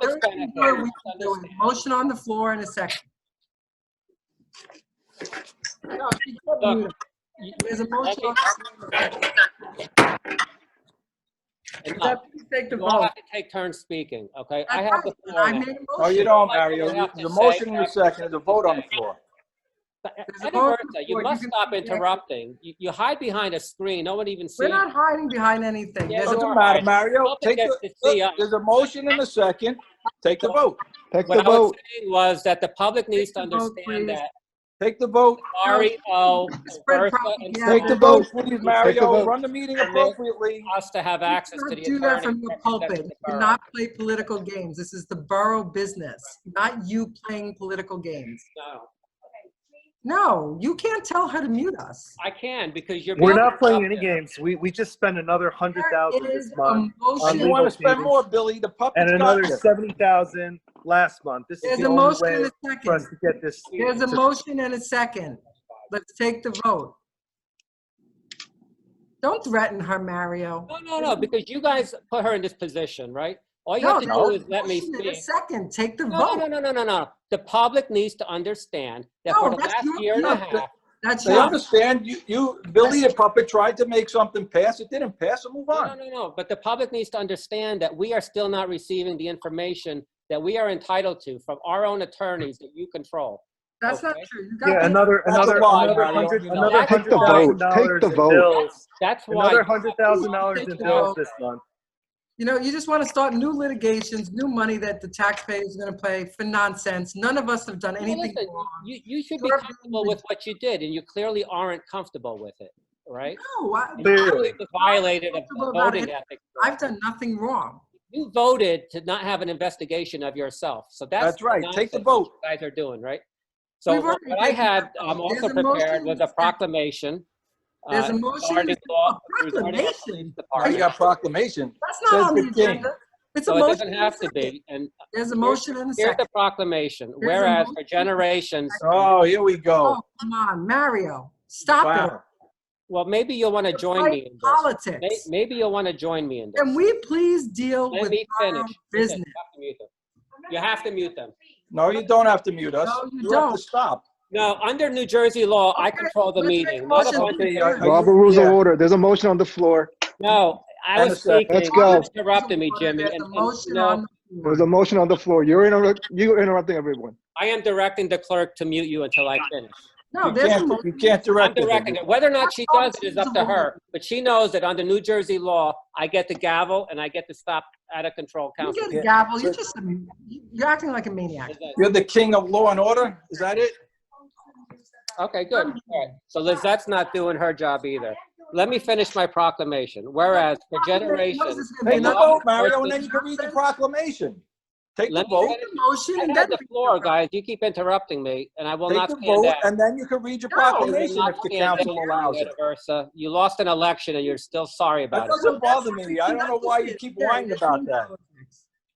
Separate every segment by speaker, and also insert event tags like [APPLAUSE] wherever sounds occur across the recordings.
Speaker 1: Let's
Speaker 2: first
Speaker 1: benefit.
Speaker 2: before we
Speaker 1: Let's
Speaker 2: do
Speaker 1: understand.
Speaker 2: it. Motion on the floor in a second. No, she couldn't mute him. There's a motion on the floor. Does
Speaker 1: Enough.
Speaker 2: that please take the
Speaker 1: You all
Speaker 2: vote?
Speaker 1: have to take turns speaking, okay? I have the floor
Speaker 2: I
Speaker 1: now.
Speaker 2: made a
Speaker 3: No, you
Speaker 2: motion.
Speaker 3: don't, Mario. You- The motion you seconded, the vote on the floor.
Speaker 2: There's a
Speaker 1: Eddie
Speaker 2: vote on
Speaker 1: Bertha,
Speaker 2: the
Speaker 1: you
Speaker 2: floor. You
Speaker 1: must
Speaker 2: can
Speaker 1: stop
Speaker 2: speak now.
Speaker 1: interrupting. You you hide behind a screen, no one even
Speaker 2: We're
Speaker 1: sees.
Speaker 2: not hiding behind anything.
Speaker 1: Yeah,
Speaker 2: There's
Speaker 1: you
Speaker 2: a-
Speaker 3: Doesn't matter, Mario.
Speaker 1: Nobody
Speaker 3: Take
Speaker 1: gets
Speaker 3: the,
Speaker 1: to see uh, us.
Speaker 3: look, there's a motion and a second. Take the vote.
Speaker 4: Take the
Speaker 1: What I was
Speaker 4: vote.
Speaker 1: saying was that the public needs to
Speaker 2: Take the vote,
Speaker 1: understand
Speaker 2: please.
Speaker 1: that
Speaker 3: Take the vote.
Speaker 1: REO,
Speaker 2: Spread
Speaker 1: Bertha, and
Speaker 2: propaganda.
Speaker 3: Take the vote, please, Mario.
Speaker 4: vote.
Speaker 3: Run the meeting appropriately.
Speaker 1: us to have access to the
Speaker 2: Do that
Speaker 1: attorney.
Speaker 2: from the pulpit. You cannot play political games. This is the borough business, not you playing political games.
Speaker 1: No,
Speaker 2: No, you can't tell her to mute us.
Speaker 1: I can, because you're.
Speaker 4: We're
Speaker 1: being
Speaker 4: not playing any
Speaker 1: interrupted.
Speaker 4: games. We, we just spent another hundred thousand
Speaker 2: There is a
Speaker 4: this month
Speaker 2: motion.
Speaker 3: You want to spend more, Billy? The
Speaker 4: and
Speaker 3: puppet's got
Speaker 4: another
Speaker 3: you.
Speaker 4: seventy thousand last month. This
Speaker 2: There's
Speaker 4: is the
Speaker 2: a
Speaker 4: only
Speaker 2: motion and
Speaker 4: way
Speaker 2: a
Speaker 4: for us
Speaker 2: second.
Speaker 4: to get this.
Speaker 2: There's a
Speaker 4: to-
Speaker 2: motion and a second. Let's take the vote. Don't threaten her, Mario.
Speaker 1: No, no, no, because you guys put her in this position, right? All you
Speaker 2: No,
Speaker 1: have to
Speaker 2: no,
Speaker 1: do is let me
Speaker 2: motion and a
Speaker 1: speak.
Speaker 2: second, take the
Speaker 1: No, no,
Speaker 2: vote.
Speaker 1: no, no, no, no, no. The public needs to understand that for
Speaker 2: No,
Speaker 1: the
Speaker 2: that's
Speaker 1: last
Speaker 2: your-
Speaker 1: year and a
Speaker 2: no,
Speaker 1: half,
Speaker 2: That's
Speaker 3: They
Speaker 2: your,
Speaker 3: understand you, you, Billy the puppet tried to make something pass. It didn't pass, so move
Speaker 1: no, no,
Speaker 3: on.
Speaker 1: no, no, but the public needs to understand that we are still not receiving the information that we are entitled to from our own attorneys that you control.
Speaker 2: that's not
Speaker 1: Okay.
Speaker 2: true. You got
Speaker 4: Yeah,
Speaker 2: the-
Speaker 4: another,
Speaker 3: That's
Speaker 4: another,
Speaker 3: a lie,
Speaker 4: another
Speaker 3: Mario.
Speaker 4: hundred,
Speaker 3: You know
Speaker 4: another
Speaker 1: that. Take
Speaker 4: hundred
Speaker 1: the
Speaker 4: thousand thousand dollars. dollars in in bills.
Speaker 1: That's- That's why.
Speaker 4: Another hundred thousand dollars in
Speaker 2: Take the
Speaker 4: bills
Speaker 2: vote.
Speaker 4: this month.
Speaker 2: You know, you just want to start new litigations, new money that the taxpayers are going to pay for nonsense. None of us have done
Speaker 1: Well,
Speaker 2: anything
Speaker 1: listen,
Speaker 2: wrong.
Speaker 1: You, you should be
Speaker 2: You're-
Speaker 1: comfortable with what you did, and you clearly aren't comfortable with it, right?
Speaker 2: No, I-
Speaker 1: You
Speaker 4: Clearly.
Speaker 1: clearly Violated a-
Speaker 2: Comfortable
Speaker 1: a
Speaker 2: about
Speaker 1: voting
Speaker 2: it.
Speaker 1: ethics.
Speaker 2: I've done nothing wrong.
Speaker 1: You voted to not have an investigation of yourself, so that's.
Speaker 3: That's right. Take the
Speaker 1: nonsense
Speaker 3: vote.
Speaker 1: you Guys are doing, right? So
Speaker 2: We've
Speaker 1: what
Speaker 2: already
Speaker 1: what I
Speaker 2: taken
Speaker 1: had,
Speaker 2: that vote.
Speaker 1: um, also
Speaker 2: There's a motion
Speaker 1: prepared was
Speaker 2: and a
Speaker 1: a
Speaker 2: second.
Speaker 1: proclamation.
Speaker 2: There's
Speaker 1: uh,
Speaker 2: a motion and
Speaker 1: regarding
Speaker 2: a
Speaker 1: law- regarding our police
Speaker 2: proclamation.
Speaker 3: Now You
Speaker 1: department.
Speaker 3: got proclamation.
Speaker 2: That's not
Speaker 3: Says
Speaker 2: on the
Speaker 3: the king.
Speaker 2: agenda. It's a
Speaker 1: So it
Speaker 2: motion.
Speaker 1: doesn't
Speaker 2: and a
Speaker 1: have to
Speaker 2: second.
Speaker 1: be, and
Speaker 2: There's a motion and a
Speaker 1: here's the
Speaker 2: second.
Speaker 1: proclamation,
Speaker 2: a
Speaker 1: whereas for
Speaker 2: motion.
Speaker 1: generations,
Speaker 3: Oh, here we go.
Speaker 2: Oh, come on, Mario, stop it.
Speaker 3: Wow.
Speaker 1: well, maybe you'll want to join
Speaker 2: Fight
Speaker 1: me in this. May-
Speaker 2: Politics.
Speaker 1: Maybe you'll want to join me in this.
Speaker 2: Can we please deal
Speaker 1: Let
Speaker 2: with
Speaker 1: me
Speaker 2: our
Speaker 1: finish. Listen,
Speaker 2: business?
Speaker 1: you have to mute them. You have to mute them.
Speaker 3: No, you don't have to mute us.
Speaker 2: No, you
Speaker 3: have
Speaker 2: don't.
Speaker 3: to stop.
Speaker 1: No, under New Jersey law, I
Speaker 2: Okay,
Speaker 1: control the
Speaker 2: let's make
Speaker 1: meeting.
Speaker 2: a
Speaker 1: not a
Speaker 2: motion.
Speaker 1: bunch of-
Speaker 3: Okay, are- are you-
Speaker 4: Robert rules of
Speaker 3: yeah.
Speaker 4: order. There's a motion on the floor.
Speaker 1: No, I
Speaker 3: And
Speaker 1: was
Speaker 3: a second.
Speaker 1: speaking.
Speaker 4: Let's go.
Speaker 1: You Interrupted me, Jimmy.
Speaker 2: There's
Speaker 1: and-
Speaker 2: a
Speaker 1: and,
Speaker 2: motion
Speaker 1: no,
Speaker 2: on the floor.
Speaker 4: There's a motion on the floor. You're interrupt, you're interrupting everyone.
Speaker 1: I am directing the clerk to mute you until I finish.
Speaker 2: No,
Speaker 3: You
Speaker 2: there's a
Speaker 3: can't, you
Speaker 2: motion.
Speaker 3: can't
Speaker 1: I'm
Speaker 3: direct
Speaker 1: directing
Speaker 3: it.
Speaker 1: it. Whether or not she does it is up to her. But she knows that under New Jersey law, I get the gavel and I get to stop out of control
Speaker 2: You
Speaker 1: council.
Speaker 2: get a gavel, you're just, a- you're acting like a maniac.
Speaker 3: You're the king of law and order? Is that it?
Speaker 1: Okay, good. All right. So Lizette's not doing her job either. Let me finish my proclamation. Whereas for
Speaker 2: What is
Speaker 1: generations,
Speaker 2: this gonna be,
Speaker 3: Take
Speaker 1: no,
Speaker 3: the
Speaker 2: another
Speaker 3: vote,
Speaker 2: [LAUGHS]
Speaker 3: Mario, and then you
Speaker 2: enforcement
Speaker 3: can read the
Speaker 2: process?
Speaker 3: proclamation. Take the
Speaker 1: Let me
Speaker 3: vote,
Speaker 1: finish.
Speaker 2: Motion
Speaker 1: I
Speaker 2: and
Speaker 1: have
Speaker 2: then.
Speaker 1: the floor, guys. You keep interrupting me, and I will
Speaker 3: take
Speaker 1: not
Speaker 3: the
Speaker 1: stand
Speaker 3: vote,
Speaker 1: down.
Speaker 3: and then you can read your
Speaker 2: No,
Speaker 1: I will
Speaker 3: proclamation
Speaker 1: not
Speaker 3: if the
Speaker 1: stand
Speaker 3: council
Speaker 1: down,
Speaker 3: allows it.
Speaker 1: Maria Versa. You lost an election, and you're still sorry
Speaker 3: That
Speaker 1: about it.
Speaker 3: doesn't bother me. I don't know why you keep whining about that.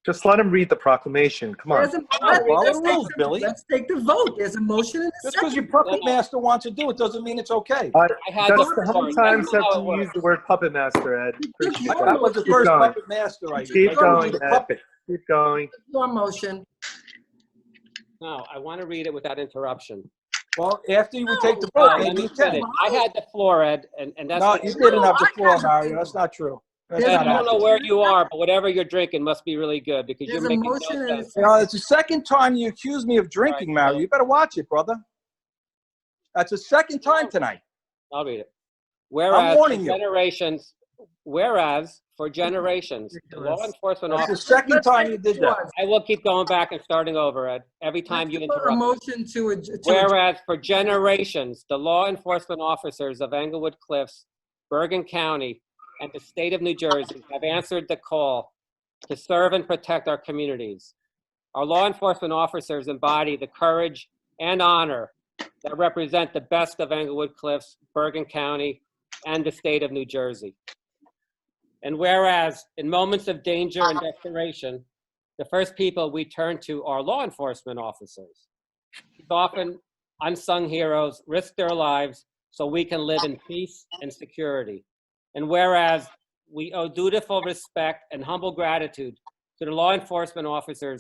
Speaker 4: Just let him read the proclamation. Come on.
Speaker 2: There's a-
Speaker 3: follow the
Speaker 2: let's take
Speaker 3: rules,
Speaker 2: the-
Speaker 3: Billy.
Speaker 2: Let's take the vote. There's a motion and a
Speaker 3: Just because
Speaker 2: second.
Speaker 3: your puppet master wants to do it, doesn't mean it's okay.
Speaker 4: I-
Speaker 1: I had
Speaker 4: That's
Speaker 1: the
Speaker 4: the how many
Speaker 1: floor.
Speaker 4: times
Speaker 1: That's
Speaker 4: have
Speaker 1: how it
Speaker 4: you
Speaker 1: works.
Speaker 4: used the word puppet master, Ed? Appreciate
Speaker 2: I-
Speaker 3: That
Speaker 4: it.
Speaker 3: was the
Speaker 4: Keep
Speaker 3: first
Speaker 4: going.
Speaker 3: puppet master I used.
Speaker 4: Keep
Speaker 3: I told you
Speaker 4: going,
Speaker 3: the
Speaker 4: Ed.
Speaker 3: puppet.
Speaker 4: Keep going.
Speaker 2: Your motion.
Speaker 1: No, I want to read it without interruption.
Speaker 3: Well, after you would take the
Speaker 1: No,
Speaker 3: vote,
Speaker 1: let
Speaker 3: then
Speaker 1: me
Speaker 3: Oh, you can.
Speaker 1: finish. I had the floor, Ed, and, and that's.
Speaker 3: No,
Speaker 1: what-
Speaker 3: you didn't have the floor, Mario. That's not true. That's
Speaker 1: Ed,
Speaker 3: not
Speaker 1: I don't
Speaker 3: happening.
Speaker 1: know where you are, but whatever you're drinking must be really good because you're
Speaker 2: There's a
Speaker 1: making no
Speaker 2: motion and a
Speaker 1: sense.
Speaker 3: You
Speaker 2: second.
Speaker 3: know, it's the second time you accuse me of drinking,
Speaker 1: Right,
Speaker 3: Mario. You better watch it, brother. That's the second time tonight.
Speaker 1: I'll read it. Whereas for
Speaker 3: warning you.
Speaker 1: generations, whereas for generations, the law
Speaker 2: Ridiculous.
Speaker 1: enforcement
Speaker 3: That's
Speaker 1: officer,
Speaker 3: the second
Speaker 2: Let's
Speaker 3: time
Speaker 2: take
Speaker 3: you
Speaker 2: it
Speaker 3: did
Speaker 2: to
Speaker 3: that.
Speaker 2: us.
Speaker 1: I will keep going back and starting over, Ed, every time you
Speaker 2: Let's put
Speaker 1: interrupt.
Speaker 2: A
Speaker 1: me.
Speaker 2: motion to, ad- to. ad-
Speaker 1: Whereas for generations, the law enforcement officers of Englewood Cliffs, Bergen County, and the state of New Jersey have answered the call to serve and protect our communities. Our law enforcement officers embody the courage and honor that represent the best of Englewood Cliffs, Bergen County, and the state of New Jersey. And whereas, in moments of danger and desperation, the first people we turn to are law enforcement officers. These often unsung heroes risk their lives so we can live in peace and security. And whereas we owe dutiful respect and humble gratitude to the law enforcement officers